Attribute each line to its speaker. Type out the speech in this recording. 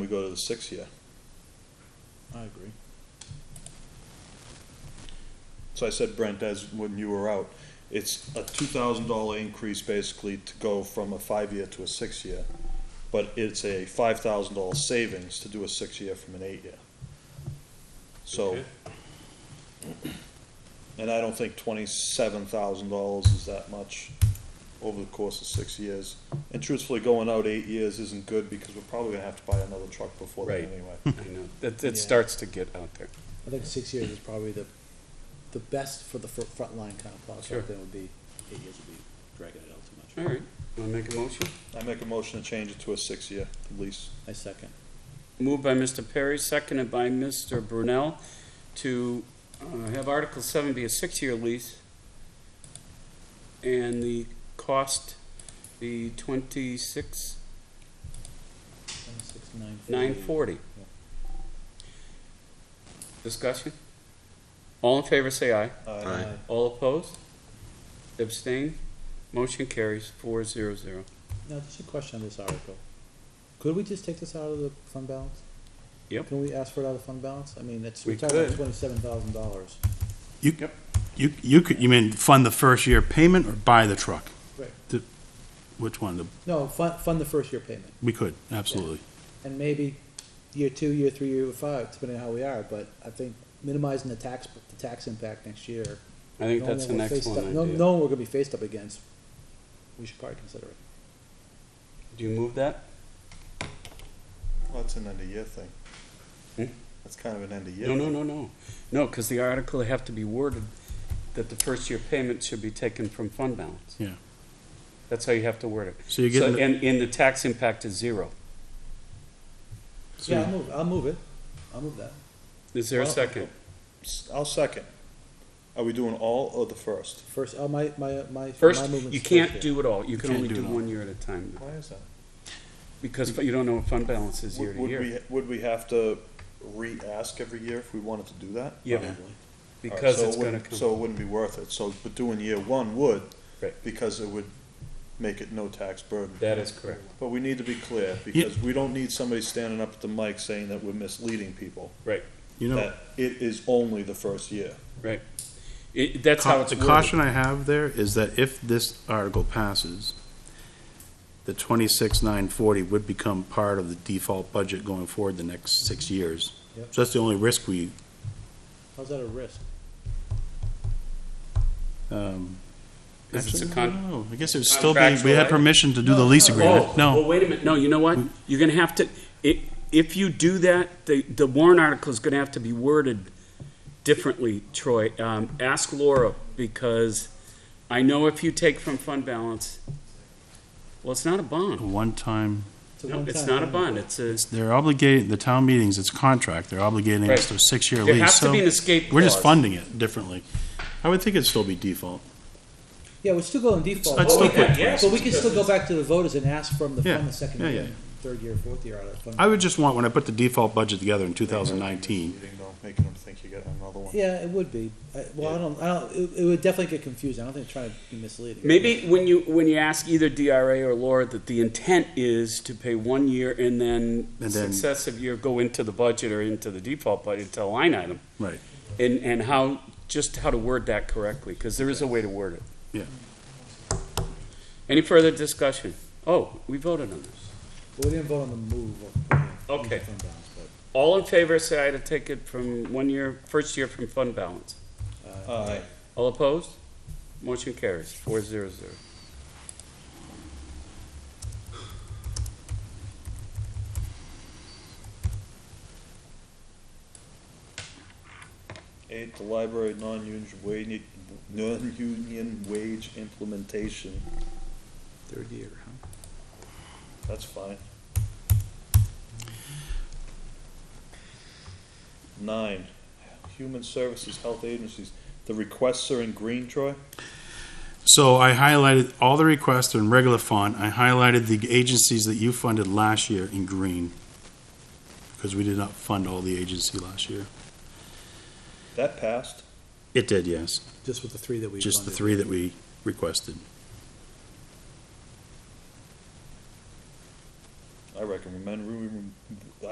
Speaker 1: We go to the six year. I agree. So I said, Brent, as when you were out, it's a two thousand dollar increase basically to go from a five year to a six year. But it's a five thousand dollar savings to do a six year from an eight year. So.
Speaker 2: Okay.
Speaker 1: And I don't think twenty-seven thousand dollars is that much over the course of six years. And truthfully, going out eight years isn't good because we're probably gonna have to buy another truck before then
Speaker 2: Right.
Speaker 1: anyway.
Speaker 2: I know. It,
Speaker 3: Yeah.
Speaker 2: it starts to get out there.
Speaker 3: I think six years is probably the, the best for the fr- front line kind of plow,
Speaker 2: Sure.
Speaker 3: so then would be, eight years would be dragging it out too
Speaker 2: All
Speaker 3: much.
Speaker 2: right, want to make a motion?
Speaker 1: I make a motion to change it to a six-year lease.
Speaker 3: I second.
Speaker 2: Moved by Mr. Perry, seconded by Mr. Brunel, to uh, have Article seven be a six-year lease. And the cost, the twenty-six,
Speaker 3: Twenty-six, nine forty.
Speaker 2: nine forty. Discussion? All in favor, say aye.
Speaker 1: Uh,
Speaker 3: Aye.
Speaker 2: All opposed? Abstain? Motion carries four zero zero.
Speaker 3: Now, just a question on this article. Could we just take this out of the fund balance?
Speaker 2: Yep.
Speaker 3: Can we ask for it out of fund balance? I mean, it's,
Speaker 2: We
Speaker 3: we're talking about
Speaker 2: could.
Speaker 3: twenty-seven thousand dollars.
Speaker 4: You, you, you could, you mean fund the first year payment or buy the truck?
Speaker 3: Right.
Speaker 4: The- Which one? The-
Speaker 3: No, fund, fund the first year payment,
Speaker 4: We could, absolutely.
Speaker 3: and maybe year two, year three, year five, depending on how we are, but I think minimizing the tax, the tax impact next year
Speaker 2: I think
Speaker 3: knowing
Speaker 2: that's
Speaker 3: what
Speaker 2: an
Speaker 3: we're faced up-
Speaker 2: excellent
Speaker 3: know-
Speaker 2: idea.
Speaker 3: Knowing we're gonna be faced up against, we should probably consider it.
Speaker 2: Do you move that?
Speaker 1: Well, that's an end-of-year thing.
Speaker 2: Hmm?
Speaker 1: That's kind of an end-of-year.
Speaker 2: No, no, no, no. No, because the article have to be worded that the first year payment should be taken from fund balance.
Speaker 4: Yeah.
Speaker 2: That's how you have to word it.
Speaker 4: So you're
Speaker 2: So,
Speaker 4: getting,
Speaker 2: and, and the tax impact is zero.
Speaker 4: so
Speaker 3: Yeah, I'll
Speaker 4: you're-
Speaker 3: move, I'll move it, I'll move that.
Speaker 2: Is there a
Speaker 1: Well,
Speaker 2: second?
Speaker 1: S- I'll second. Are we doing all or the first?
Speaker 3: First, oh, my, my, my.
Speaker 2: First,
Speaker 3: my movement's
Speaker 2: you
Speaker 3: first
Speaker 2: can't
Speaker 3: here.
Speaker 2: do it all. You can
Speaker 4: can't
Speaker 2: only
Speaker 4: do
Speaker 2: do
Speaker 4: it all.
Speaker 2: one year at a time,
Speaker 1: Why is that?
Speaker 2: because you don't know what fund balance is year
Speaker 1: Would
Speaker 2: to
Speaker 1: would
Speaker 2: year.
Speaker 1: we, would we have to re-ask every year if we wanted to do that?
Speaker 2: Yeah,
Speaker 3: Probably.
Speaker 1: Alright,
Speaker 2: because
Speaker 1: so it
Speaker 2: it's gonna
Speaker 1: wouldn't-
Speaker 2: come.
Speaker 1: So it wouldn't be worth it, so, but doing year one would.
Speaker 2: Right.
Speaker 1: Because it would make it no tax burden.
Speaker 2: That is correct.
Speaker 1: But we need to be clear, because we don't need somebody standing up at the mic saying that we're misleading people.
Speaker 2: Right,
Speaker 4: you know,
Speaker 1: That it is only the first year.
Speaker 2: right. It, that's how
Speaker 4: ca-
Speaker 2: it's
Speaker 4: the
Speaker 2: worded.
Speaker 4: caution I have there is that if this article passes, the twenty-six nine forty would become part of the default budget going forward the next six years.
Speaker 3: Yep.
Speaker 4: So that's the only risk we,
Speaker 3: How's that a risk?
Speaker 4: um.
Speaker 2: If it's a
Speaker 4: actually,
Speaker 2: con-
Speaker 4: I don't know. I guess it would still be, we
Speaker 2: Contractual,
Speaker 4: had
Speaker 2: right?
Speaker 4: permission to do the lease
Speaker 2: Oh,
Speaker 4: agreement, no.
Speaker 2: Well, wait a minute, no, you know what? You're gonna have to, i- if you do that, the, the warrant article is gonna have to be worded differently, Troy. Um, ask Laura, because I know if you take from fund balance, well, it's not a
Speaker 4: A
Speaker 3: Oh,
Speaker 2: bond.
Speaker 4: One-time
Speaker 3: It's a
Speaker 2: No, it's
Speaker 3: one-time
Speaker 2: not a
Speaker 3: payment.
Speaker 2: bond, it's a,
Speaker 4: They're obligated, the town meetings, it's contract, they're obligating us to a six-year
Speaker 2: there
Speaker 4: lease,
Speaker 2: has to
Speaker 4: so
Speaker 2: be an escape
Speaker 4: we're just
Speaker 2: clause.
Speaker 4: funding it differently. I would think it'd still be default.
Speaker 3: Yeah, we're still going default.
Speaker 4: I'd still
Speaker 3: but we can-
Speaker 2: quit. Yes,
Speaker 3: But we can still go back to the voters and ask from the,
Speaker 4: Yeah,
Speaker 3: from the second
Speaker 4: yeah,
Speaker 3: year,
Speaker 4: yeah.
Speaker 3: third year, fourth year out of fund.
Speaker 4: I would just want, when I put the default budget together in two thousand nineteen,
Speaker 1: Misleading, though, Making them think you got another one.
Speaker 3: Yeah, it would be. I, well, I don't, I don't, it, it would definitely get confusing. I don't think it's trying to be misleading.
Speaker 2: Maybe when you, when you ask either DRA or Laura that the intent is to pay one year and then
Speaker 4: And then-
Speaker 2: successive year go into the budget or into the default budget, into a line item.
Speaker 4: right,
Speaker 2: And, and how, just how to word that correctly, because there is a way to word it.
Speaker 4: yeah.
Speaker 2: Any further discussion? Oh, we voted on this.
Speaker 3: But We didn't vote on the move. of- of the
Speaker 2: Okay.
Speaker 3: fund balance, but,
Speaker 2: All in favor, say aye to take it from one year, first year from fund balance.
Speaker 3: uh,
Speaker 1: Aye.
Speaker 2: All opposed? Motion carries, four zero zero.
Speaker 1: Eight, the library non-union wage, non-union wage implementation,
Speaker 3: Third year, huh?
Speaker 1: that's fine. Nine, human services, health agencies, the requests are in green, Troy?
Speaker 4: So I highlighted all the requests in regular font, I highlighted the agencies that you funded last year in green, because we did not fund all the agency last year.
Speaker 1: That passed,
Speaker 4: It did, yes,
Speaker 3: Just with the three that we.
Speaker 4: just the
Speaker 3: funded.
Speaker 4: three that we requested.
Speaker 1: I recommend